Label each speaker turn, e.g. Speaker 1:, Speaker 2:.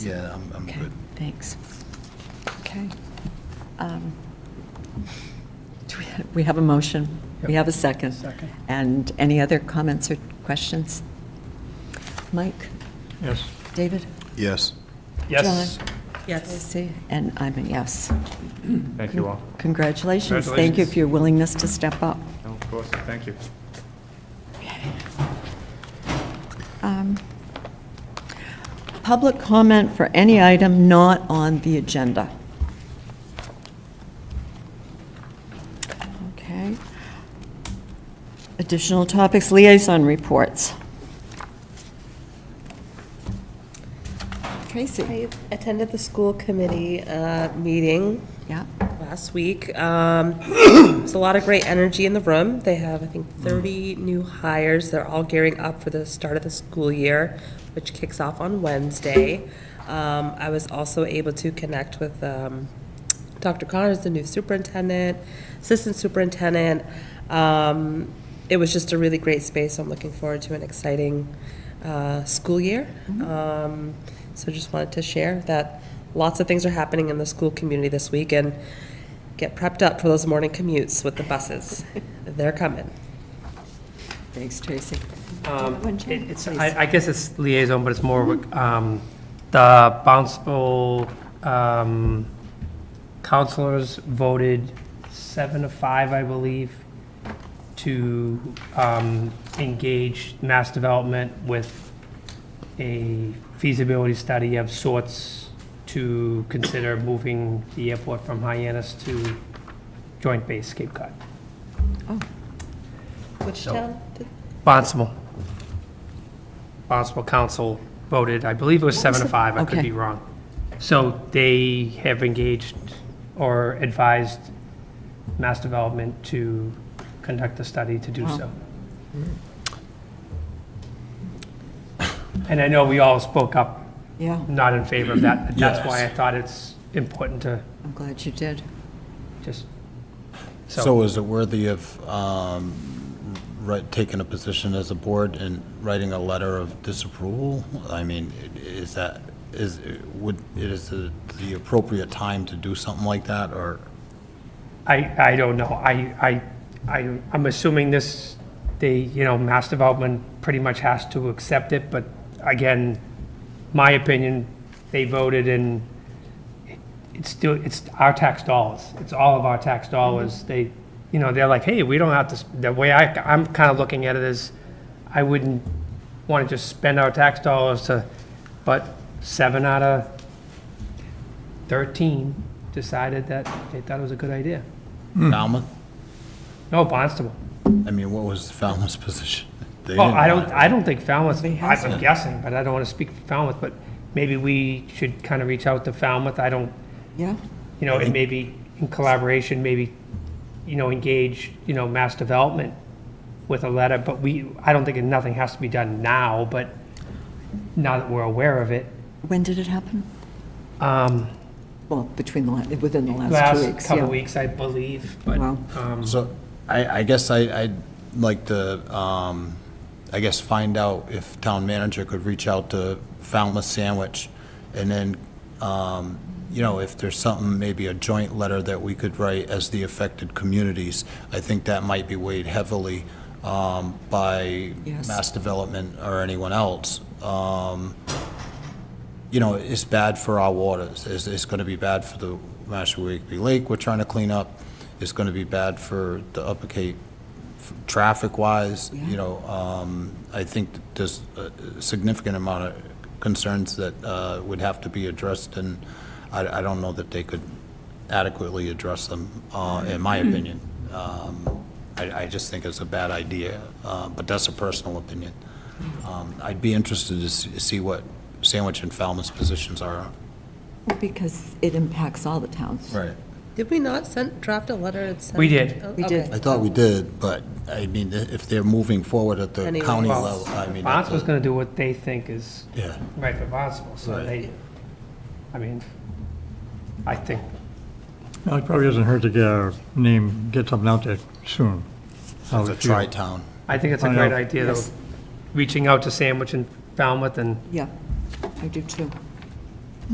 Speaker 1: Yeah, I'm, I'm
Speaker 2: Okay,
Speaker 1: good.
Speaker 2: thanks. Okay. Um, do we ha- We have a motion. We have a second.
Speaker 3: Second.
Speaker 2: And any other comments or questions? Mike?
Speaker 3: Yes.
Speaker 2: David?
Speaker 1: Yes.
Speaker 3: Yes.
Speaker 2: John? Tracy? And I'm a yes.
Speaker 4: Thank you all.
Speaker 2: Congratulations. Thank you
Speaker 4: Congratulations.
Speaker 2: for your willingness to step up.
Speaker 4: No, Of course, thank you.
Speaker 2: Um, Public comment for any item not on the agenda. Okay. Additional topics, liaison reports. Tracy?
Speaker 5: I attended the school committee uh, meeting
Speaker 2: Yeah,
Speaker 5: last week. Um, There's a lot of great energy in the room. They have, I think, 30 new hires. They're all gearing up for the start of the school year, which kicks off on Wednesday. Um, I was also able to connect with um, Dr. Connors, the new superintendent, assistant superintendent. Um, It was just a really great space. I'm looking forward to an exciting uh, school year. Um, So just wanted to share that lots of things are happening in the school community this week, and get prepped up for those morning commutes with the buses. They're coming.
Speaker 2: thanks, Tracy.
Speaker 6: Um,
Speaker 2: One change,
Speaker 6: it- It's,
Speaker 2: please.
Speaker 6: I, I guess it's liaison, but it's more, of a, um, the bounceable, um, counselors voted seven to five, I believe, to, um, engage mass development with a feasibility study of sorts to consider moving the airport from Hyannis to Joint Base Cape Cod.
Speaker 5: Which
Speaker 6: So-
Speaker 5: town?
Speaker 6: Bonsible. Bonsible Council voted, I believe it was seven to five, I could
Speaker 2: Okay.
Speaker 6: be wrong. So they have engaged or advised Mass Development to conduct a study to do so. And I know we all spoke up
Speaker 2: Yeah,
Speaker 6: not in favor of that, but that's why I thought it's important to
Speaker 2: I'm glad you did.
Speaker 6: just,
Speaker 1: So
Speaker 6: so,
Speaker 1: is it worthy of, um, right, taking a position as a board and writing a letter of disapproval? I mean, i- is that, is, would, is it the appropriate time to do something like that, or?
Speaker 6: I, I don't know. I, I, I, I'm assuming this, they, you know, Mass Development pretty much has to accept it, but again, my opinion, they voted and it- it's still, it's our tax dollars. It's all of our tax dollars. They, you know, they're like, hey, we don't have to, sp-" the way I, I'm kind of looking at it is, I wouldn't want to just spend our tax dollars to, but seven out of 13 decided that they thought it was a good idea. Hmm.
Speaker 1: Falmouth?
Speaker 6: No, Barnstable.
Speaker 1: I mean, what was Falmouth's position? They
Speaker 6: Well,
Speaker 1: didn't
Speaker 6: I
Speaker 1: want
Speaker 6: don't,
Speaker 1: it.
Speaker 6: I don't think Falmouth,
Speaker 2: hasn't.
Speaker 6: I'm guessing, but I don't want to speak for Falmouth, but maybe we should kind of reach out to Falmouth. I don't,
Speaker 2: Yeah,
Speaker 6: you know, and maybe in collaboration, maybe, you know, engage, you know, mass development with a letter, but we, I don't think nothing has to be done now, but now that we're aware of it,
Speaker 2: when did it happen?
Speaker 6: um,
Speaker 2: Well, between the, la- within the last two
Speaker 6: last
Speaker 2: weeks.
Speaker 6: couple
Speaker 2: yeah.
Speaker 6: of weeks, I believe, but,
Speaker 2: Wow.
Speaker 6: um,
Speaker 1: So I, I guess I, I'd like to, um, I guess, find out if town manager could reach out to Falmouth Sandwich, and then, um, you know, if there's something, maybe a joint letter that we could write as the affected communities, I think that might be weighed heavily um, by
Speaker 2: Yes.
Speaker 1: Mass Development or anyone else. Um, you know, it's bad for our waters. It's, it's gonna be bad for the Mashpee Lake we're trying to clean up. It's gonna be bad for the Upper Cape, f- traffic-wise, you know. Um, I think that there's a a significant amount of concerns that, uh, would have to be addressed, and I, I don't know that they could adequately address them, uh, in my opinion. Um, I, I just think it's a bad idea, uh, but that's a personal opinion. Um, I'd be interested to s- see what Sandwich and Falmouth's positions are.
Speaker 2: Because it impacts all the towns.
Speaker 1: Right.
Speaker 5: Did we not send, draft a letter and send?
Speaker 6: We did.
Speaker 5: Oh,
Speaker 2: We did.
Speaker 5: okay.
Speaker 1: I thought we did, but, I mean, if they're moving forward at the
Speaker 5: Anyway.
Speaker 1: county
Speaker 6: Well,
Speaker 1: level, I mean. that's
Speaker 6: Barnstable's going to do what they think is
Speaker 1: Yeah,
Speaker 6: Right, for Barnstable, so
Speaker 1: Right.
Speaker 6: they, I mean, I think,
Speaker 3: Well, it probably doesn't hurt to get our name, get something out there soon. How
Speaker 1: it's a
Speaker 3: we feel.
Speaker 1: tri-town.
Speaker 6: I think it's a
Speaker 3: I know.
Speaker 6: great idea, though,
Speaker 2: Yes.
Speaker 6: reaching out to Sandwich and Falmouth and
Speaker 2: Yeah, I do too.